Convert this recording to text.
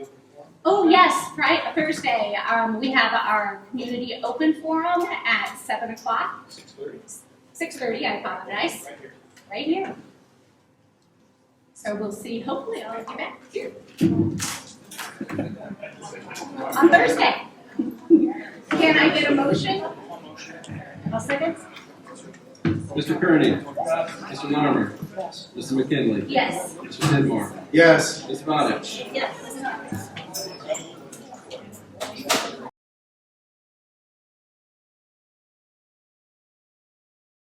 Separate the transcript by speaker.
Speaker 1: Oh, Yes, Fri- Thursday, um, we have our community open forum at seven o'clock,
Speaker 2: Six thirty,
Speaker 1: six thirty, I apologize,
Speaker 2: right here.
Speaker 1: right here. So we'll see, hopefully all of you back here on Thursday. Can I get a motion? I'll second.
Speaker 3: Mr. Kearney. Mr. Larmour. Mr. McKinley.
Speaker 1: Yes,
Speaker 3: Mr. Tidmore.
Speaker 4: Yes.
Speaker 3: Ms. Bodich.
Speaker 1: yes.